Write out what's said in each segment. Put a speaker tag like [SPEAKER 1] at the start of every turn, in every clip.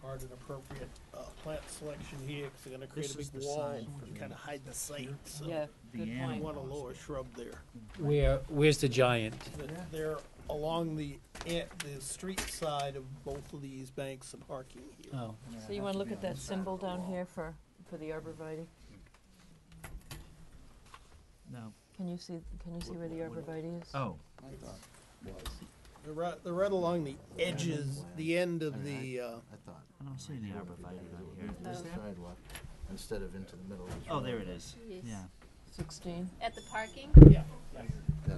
[SPEAKER 1] start an appropriate uh, plant selection here, because they're gonna create a
[SPEAKER 2] This
[SPEAKER 1] big
[SPEAKER 2] is the
[SPEAKER 1] wall
[SPEAKER 2] sign for
[SPEAKER 1] and
[SPEAKER 2] the-
[SPEAKER 1] kind of hide the site, so.
[SPEAKER 3] Yeah,
[SPEAKER 2] the
[SPEAKER 3] good
[SPEAKER 1] You
[SPEAKER 3] point.
[SPEAKER 2] animal.
[SPEAKER 1] want a lower shrub there.
[SPEAKER 4] Where, where's the giant?
[SPEAKER 1] That They're along the, an- the street side of both of these banks and parking
[SPEAKER 2] Uh.
[SPEAKER 1] here.
[SPEAKER 4] Oh,
[SPEAKER 3] So you wanna look at that symbol down here for, for the arborvitae?
[SPEAKER 2] No.
[SPEAKER 3] Can you see, can you see where the arborvitae is?
[SPEAKER 2] Oh,
[SPEAKER 5] I thought was,
[SPEAKER 1] They're right, they're right along the edges, the end of the, uh,
[SPEAKER 5] I thought.
[SPEAKER 2] I don't see any arborvitae down here.
[SPEAKER 5] Moved to the
[SPEAKER 3] Oh.
[SPEAKER 2] Is there?
[SPEAKER 5] sidewalk instead of into the middle of the
[SPEAKER 2] Oh,
[SPEAKER 5] road.
[SPEAKER 2] there it is.
[SPEAKER 6] Yes.
[SPEAKER 2] Yeah.
[SPEAKER 3] Sixteen?
[SPEAKER 6] At the parking?
[SPEAKER 1] yeah.
[SPEAKER 5] Then,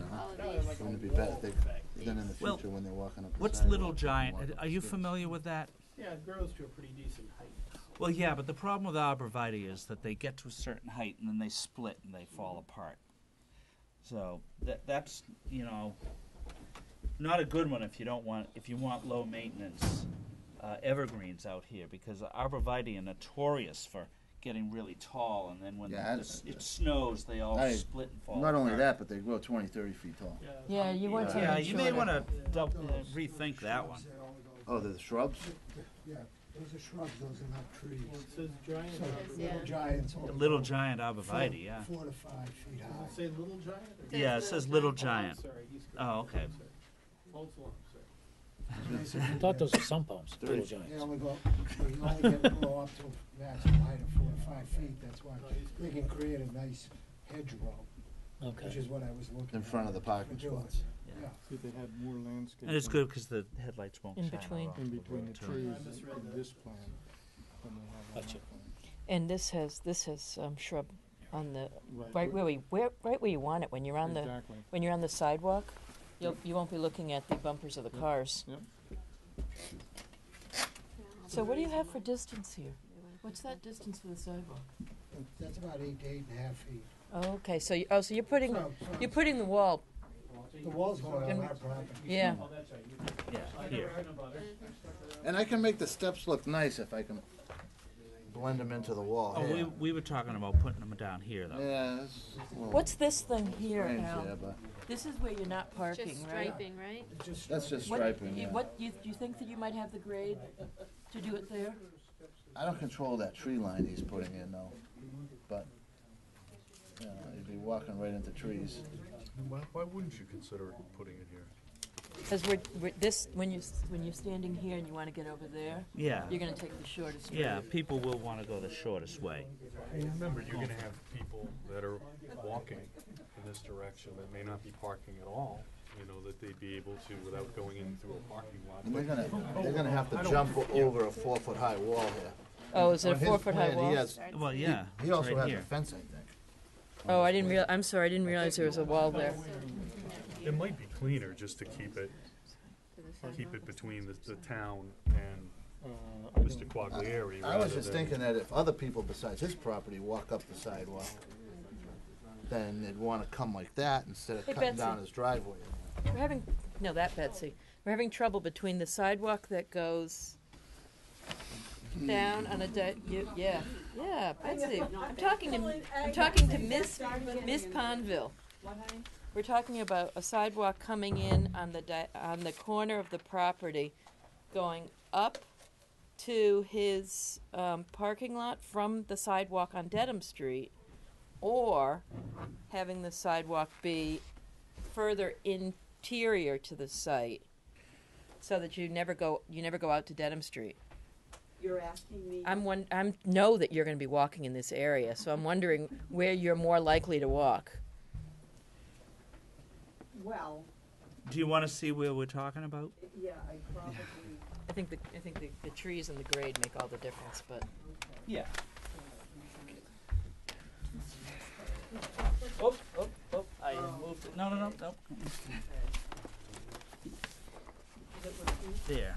[SPEAKER 5] uh, huh?
[SPEAKER 6] All of these.
[SPEAKER 5] It's gonna be better if they, then in the
[SPEAKER 2] Well,
[SPEAKER 5] future when they're walking up the
[SPEAKER 2] What's
[SPEAKER 5] sidewalk,
[SPEAKER 2] Little
[SPEAKER 5] they can walk
[SPEAKER 2] Giant?
[SPEAKER 5] up
[SPEAKER 2] Are you
[SPEAKER 5] the
[SPEAKER 2] familiar with that?
[SPEAKER 1] Yeah, it grows to a pretty decent height.
[SPEAKER 2] Well, yeah, but the problem with arborvitae is that they get to a certain height and then they split and they fall apart. So that that's you know not a good one if you don't want if you want low maintenance uh, evergreens out here because arborvitae are notorious for getting really tall and then when
[SPEAKER 5] Yeah, I-
[SPEAKER 2] the s- it snows they all
[SPEAKER 5] I-
[SPEAKER 2] split and fall.
[SPEAKER 5] Not only uh,
[SPEAKER 2] apart.
[SPEAKER 5] that, but they grow 20, 30 feet tall.
[SPEAKER 3] Yeah, you want
[SPEAKER 2] Yeah,
[SPEAKER 3] something
[SPEAKER 2] you may
[SPEAKER 3] shorter.
[SPEAKER 2] want to rethink that one.
[SPEAKER 5] Oh, they're the shrubs?
[SPEAKER 7] Yeah, those are shrubs, those are not trees.
[SPEAKER 1] It says giant,
[SPEAKER 7] So
[SPEAKER 1] arborvitae.
[SPEAKER 7] the little giants. all
[SPEAKER 2] Little
[SPEAKER 7] go
[SPEAKER 2] Giant
[SPEAKER 7] four-
[SPEAKER 2] arborvitae, yeah.
[SPEAKER 7] Four to five feet
[SPEAKER 1] Does it
[SPEAKER 7] high.
[SPEAKER 1] say little giant? or-
[SPEAKER 2] Yeah, it says Little
[SPEAKER 1] I'm
[SPEAKER 2] Giant.
[SPEAKER 1] sorry, he's correct.
[SPEAKER 2] Oh, okay.
[SPEAKER 1] I'm sorry. False alarm, sorry.
[SPEAKER 4] I thought those were sun palms, little
[SPEAKER 7] They
[SPEAKER 4] giants.
[SPEAKER 7] only go, they only get blow up to a maximum height of four to five feet, that's why
[SPEAKER 1] No, he's
[SPEAKER 7] they
[SPEAKER 1] correct.
[SPEAKER 7] can create a nice hedgerow, which
[SPEAKER 4] Okay.
[SPEAKER 7] is what I was looking at.
[SPEAKER 5] In front of the
[SPEAKER 7] for
[SPEAKER 5] parking
[SPEAKER 7] doing.
[SPEAKER 5] spots.
[SPEAKER 7] Yeah.
[SPEAKER 8] See, they had more landscape.
[SPEAKER 2] And it's good because the headlights won't
[SPEAKER 3] In
[SPEAKER 2] shine
[SPEAKER 3] between.
[SPEAKER 2] around
[SPEAKER 8] In between
[SPEAKER 2] road,
[SPEAKER 8] the
[SPEAKER 2] too.
[SPEAKER 8] trees
[SPEAKER 1] I misread
[SPEAKER 8] in
[SPEAKER 1] that.
[SPEAKER 8] this plan than they have on
[SPEAKER 4] Gotcha.
[SPEAKER 8] that plan.
[SPEAKER 3] And this has, this has, um, shrub on the,
[SPEAKER 8] Right,
[SPEAKER 3] right
[SPEAKER 8] but-
[SPEAKER 3] where we, where, right where you want it, when you're on the,
[SPEAKER 8] Exactly.
[SPEAKER 3] when you're on the sidewalk, you'll, you won't be looking at the bumpers of the
[SPEAKER 8] Yep.
[SPEAKER 3] cars.
[SPEAKER 8] Yep.
[SPEAKER 3] So what do you have for distance here? What's that distance for the sidewalk?
[SPEAKER 7] But That's about eight, to eight and a half feet.
[SPEAKER 3] Okay, so, you- oh, so you're putting,
[SPEAKER 7] So- so
[SPEAKER 3] you're putting the wall,
[SPEAKER 7] The wall's going on
[SPEAKER 3] And-
[SPEAKER 7] our property.
[SPEAKER 3] yeah.
[SPEAKER 2] Yeah, here.
[SPEAKER 5] And I can make the steps look nice if I can blend them into the wall.
[SPEAKER 2] Oh, we, Oh.
[SPEAKER 5] Yeah.
[SPEAKER 2] we were talking about putting them down here, though.
[SPEAKER 5] Yeah, that's a little
[SPEAKER 3] What's this thing here,
[SPEAKER 5] strange there,
[SPEAKER 3] Al?
[SPEAKER 5] but
[SPEAKER 3] This is where you're not parking,
[SPEAKER 6] Just
[SPEAKER 3] right?
[SPEAKER 6] striping, right?
[SPEAKER 7] Just
[SPEAKER 5] that's just
[SPEAKER 3] What-
[SPEAKER 5] striping,
[SPEAKER 3] you-
[SPEAKER 5] yeah.
[SPEAKER 3] What, you, you think that you might have the grade to do it there?
[SPEAKER 5] I don't control that tree line he's putting in though, but, you know, you'd be walking right into trees.
[SPEAKER 9] Why, why wouldn't you consider putting it here?
[SPEAKER 3] Because we're, we're, this, when you, s- when you're standing here and you wanna get over there,
[SPEAKER 2] Yeah.
[SPEAKER 3] you're gonna take the shortest route.
[SPEAKER 2] Yeah, people will want to go the shortest way.
[SPEAKER 9] Remember, you're gonna have people that are walking in this direction that may not be parking at all, you know, that they'd be able to without going in through a parking lot.
[SPEAKER 5] And they're gonna, they're gonna have to jump over a four foot high wall here.
[SPEAKER 3] Oh, is it a
[SPEAKER 5] On his
[SPEAKER 3] four foot high
[SPEAKER 5] plan, he
[SPEAKER 3] wall?
[SPEAKER 5] has-
[SPEAKER 2] Well, yeah.
[SPEAKER 5] He
[SPEAKER 2] it's
[SPEAKER 5] also
[SPEAKER 2] right
[SPEAKER 5] has a
[SPEAKER 2] here.
[SPEAKER 5] fence, I think.
[SPEAKER 3] Oh, I didn't real, I'm sorry, I didn't realize there was a wall there.
[SPEAKER 9] It might be cleaner just to keep it,
[SPEAKER 6] To the side.
[SPEAKER 9] keep it between the, the town and
[SPEAKER 8] Uh, I
[SPEAKER 9] Mr.
[SPEAKER 8] don't-
[SPEAKER 9] Quaglieri.
[SPEAKER 5] I was
[SPEAKER 9] rather
[SPEAKER 5] just
[SPEAKER 9] than-
[SPEAKER 5] thinking that if other people besides his property walk up the sidewalk, then they'd wanna come like that instead of
[SPEAKER 3] Hey,
[SPEAKER 5] cutting
[SPEAKER 3] Betsy.
[SPEAKER 5] down his driveway.
[SPEAKER 3] We're having, no, that Betsy, we're having trouble between the sidewalk that goes down on a di- you, yeah, yeah, Betsy, I'm talking to, I'm talking to Miss, Miss Ponville. We're talking about a sidewalk coming in on the di- on the corner of the property, going up to his, um, parking lot from the sidewalk on Dedham Street, or having the sidewalk be further interior to the site so that you never go you never go out to Dedham Street.
[SPEAKER 10] You're asking me,
[SPEAKER 3] I'm one I'm know that you're going to be walking in this area, so I'm wondering where you're more likely to walk.
[SPEAKER 10] well,
[SPEAKER 2] Do you want to see where we're talking about?
[SPEAKER 10] yeah, I probably,
[SPEAKER 3] I think the I think the, the trees and the grade make all the difference, but
[SPEAKER 2] Yeah. Oh, oh, oh, I moved it. No, no, no, no. There.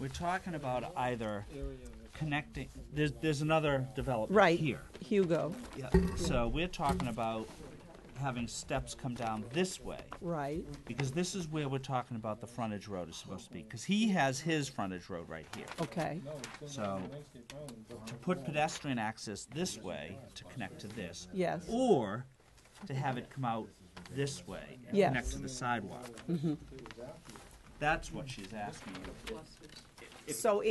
[SPEAKER 2] We're talking about either connecting, there's, there's another development
[SPEAKER 10] Right.
[SPEAKER 2] here.
[SPEAKER 10] Hugo,
[SPEAKER 2] Yeah. So we're talking about having steps come down this way.
[SPEAKER 10] right,
[SPEAKER 2] Because this is where we're talking about the frontage road is supposed to be, because he has his frontage road right here.
[SPEAKER 10] okay,
[SPEAKER 8] No, it's in the
[SPEAKER 2] So-
[SPEAKER 8] landscape plan, but-
[SPEAKER 2] To put pedestrian access this way to connect to this,
[SPEAKER 10] yes,
[SPEAKER 2] or to have it come out this way and
[SPEAKER 10] Yes.
[SPEAKER 2] connect to the sidewalk. That's what she's asking you.
[SPEAKER 10] so